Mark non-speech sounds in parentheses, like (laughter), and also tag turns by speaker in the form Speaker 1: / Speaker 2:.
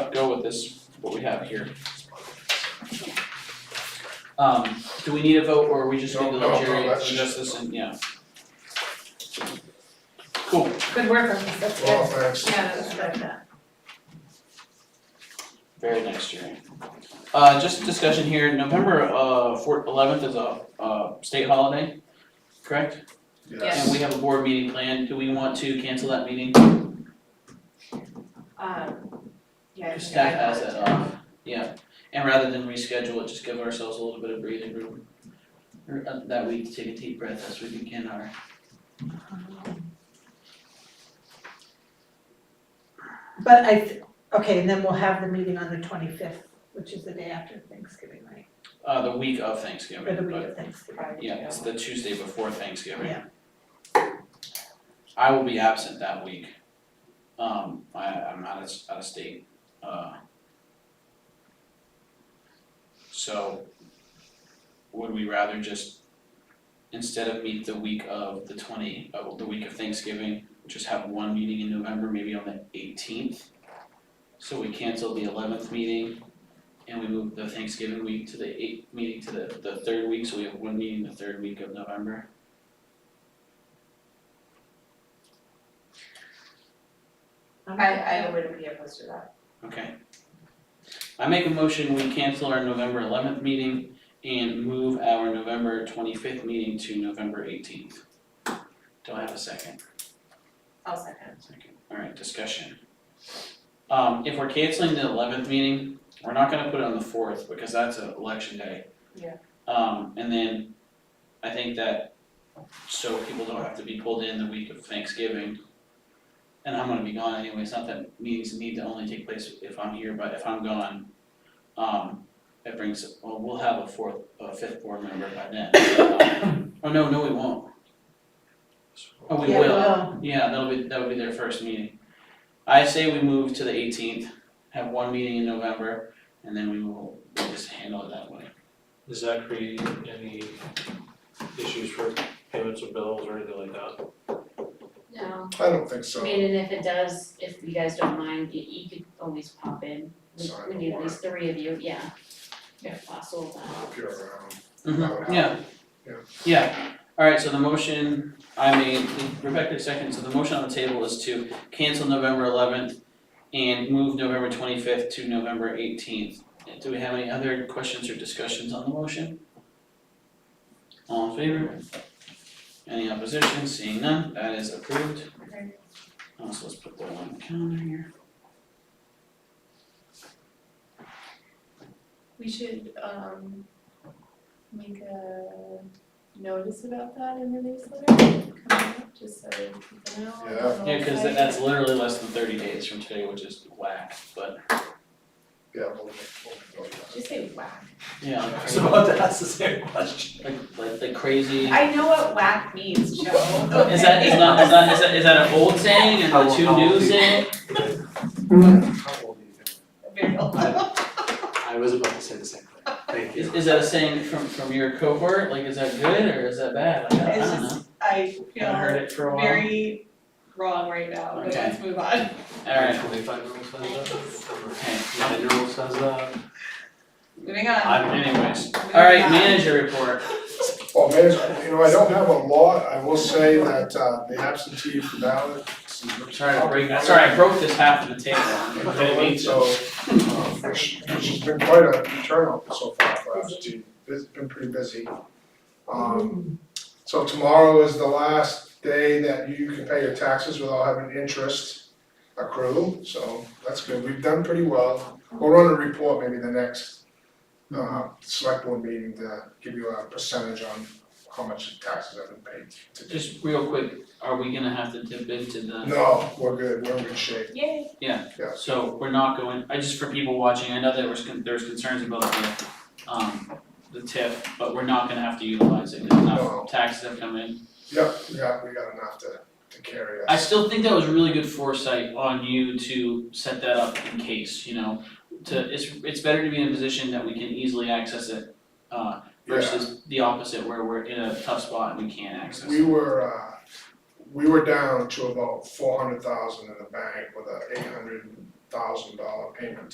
Speaker 1: what this, what we have here. Um, do we need a vote or we just need to
Speaker 2: No, no,
Speaker 1: let
Speaker 2: no,
Speaker 1: Jerry
Speaker 2: that's-
Speaker 1: adjust this and, yeah? Cool,
Speaker 3: Good work on this, that's
Speaker 2: Well,
Speaker 3: good.
Speaker 2: thanks.
Speaker 3: Yeah, that's good.
Speaker 1: very nice, Jerry. Uh, just discussion here, November uh fourth, eleventh is a uh state holiday, correct?
Speaker 3: Yes.
Speaker 1: And we have a board meeting planned, do we want to cancel that meeting?
Speaker 3: Um, yeah. I think
Speaker 1: Staff
Speaker 3: I
Speaker 1: has
Speaker 3: got it.
Speaker 1: that off, yeah, and rather than reschedule it, just give ourselves a little bit of breathing room. Or, uh, That we take a deep breath as we begin our
Speaker 4: But I, th- okay, and then we'll have the meeting on the twenty-fifth, which is the day after Thanksgiving, right?
Speaker 1: Uh, the week of
Speaker 4: Or
Speaker 1: Thanksgiving,
Speaker 4: the week
Speaker 1: but,
Speaker 4: of Thanksgiving.
Speaker 3: Probably,
Speaker 1: yeah, it's the Tuesday before Thanksgiving.
Speaker 4: Yeah.
Speaker 1: I will be absent that week. Um, I, I'm out of, s- out of state, uh. So, would we rather just, instead of meet the week of the twenty, uh, the week of Thanksgiving, just have one meeting in November, maybe on the eighteenth? So we cancel the eleventh meeting, and we move the Thanksgiving week to the eighth, meeting to the, the third week, so we have one meeting the third week of November.
Speaker 3: I, I wouldn't be opposed to that.
Speaker 1: Okay. I make a motion, we cancel our November eleventh meeting and move our November twenty-fifth meeting to November eighteenth. Do I have a second?
Speaker 3: I'll second.
Speaker 1: Second. Alright, discussion. Um, if we're canceling the eleventh meeting, we're not gonna put it on the fourth because that's an election day.
Speaker 3: Yeah.
Speaker 1: Um, and then I think that, so people don't have to be pulled in the week of Thanksgiving. And I'm gonna be gone anyway, it's not that meetings need to only take place if I'm here, but if I'm gone, um, that brings, well, we'll have a fourth, a fifth board member by then. (coughs) Oh, no, no, we won't. Oh, we
Speaker 4: Yeah,
Speaker 1: will.
Speaker 4: well,
Speaker 1: Yeah, that'll be, that'll be their first meeting. I say we move to the eighteenth, have one meeting in November, and then we will we'll just handle it that way.
Speaker 5: Does that create any issues for payments of bills or anything like (laughs) that?
Speaker 6: No,
Speaker 2: I don't think
Speaker 6: I
Speaker 2: so.
Speaker 6: mean, and if it does, if you guys don't mind, you, you could always pop in. We-
Speaker 2: Sign
Speaker 6: We
Speaker 2: the
Speaker 6: need at
Speaker 2: warrant.
Speaker 6: least three of you, yeah. If possible, then.
Speaker 2: If you're around.
Speaker 1: Mhm, yeah.
Speaker 2: Yeah.
Speaker 1: Yeah, alright, so the motion I made, Rebecca second, so the motion on the table is to cancel November eleventh and move November twenty-fifth to November eighteenth. Do we have any other questions or discussions on the motion? All in favor? Any opposition? Seeing none, that is approved.
Speaker 3: Okay.
Speaker 1: Uh, so let's put that on the calendar here.
Speaker 7: We should, um, make a notice about that in the newsletter coming up, just so people know.
Speaker 2: Yeah.
Speaker 7: on the
Speaker 1: Yeah, cause
Speaker 7: website.
Speaker 1: that's literally less than thirty days from today, which is whack, but
Speaker 2: Yeah, we'll, we'll, we'll do that.
Speaker 7: Just say whack.
Speaker 1: yeah, like crazy,
Speaker 5: So about to ask the same question.
Speaker 1: like like like crazy.
Speaker 3: I know what whack means, Joe.
Speaker 1: Is that, is not, is that, is that, is that an old saying and the two new saying?
Speaker 5: How old are
Speaker 3: (laughs)
Speaker 5: you?
Speaker 3: Very well.
Speaker 5: I was about to say the same thing, thank
Speaker 1: Is
Speaker 5: you.
Speaker 1: is that a saying from from your cohort, like is that good or is that bad? Like, I I
Speaker 3: It's
Speaker 1: don't know,
Speaker 3: just- I
Speaker 1: haven't
Speaker 3: feel
Speaker 1: heard it for a while.
Speaker 3: very wrong right now, but
Speaker 1: Okay.
Speaker 3: let's move on.
Speaker 1: (laughs) Alright,
Speaker 5: Twenty-five year old says that,
Speaker 1: okay,
Speaker 5: nine year old says that,
Speaker 3: Moving on.
Speaker 5: I'm
Speaker 1: anyways,
Speaker 3: Moving
Speaker 1: alright,
Speaker 3: on.
Speaker 1: manager report,
Speaker 2: Well, Mayor, you know, I don't have a lot. I will say that, uh, the absentee ballot.
Speaker 1: I'm sorry to break, I'm sorry, I broke this half of the table.
Speaker 2: So, uh, which, which has been quite a turnout so far for absentee. It's been pretty busy. Um, so tomorrow is the last day that you can pay your taxes without having interest accrue, so that's good. We've done pretty well. We'll run a report maybe the next, uh, select board meeting to give you a percentage on how much taxes have been paid to date.
Speaker 1: Just real quick, are we gonna have to dip into the?
Speaker 2: No, we're good, we're in good shape.
Speaker 3: Yay.
Speaker 1: So we're not going, I just for people watching, I know there was, con- there was concerns about the, um, the tip, but we're not gonna have to utilize it, 'cause
Speaker 2: No.
Speaker 1: enough taxes have come in.
Speaker 2: Yep, we got, we got enough to, to carry us.
Speaker 1: I still think that was really good foresight on you to set that up in case, you know, to, it's, it's better to be in a position that we can easily access it, uh, versus the opposite where we're in a tough spot and we can't access
Speaker 2: We
Speaker 1: it.
Speaker 2: were, uh, we were down to about four hundred thousand in the bank with a eight hundred thousand dollar payment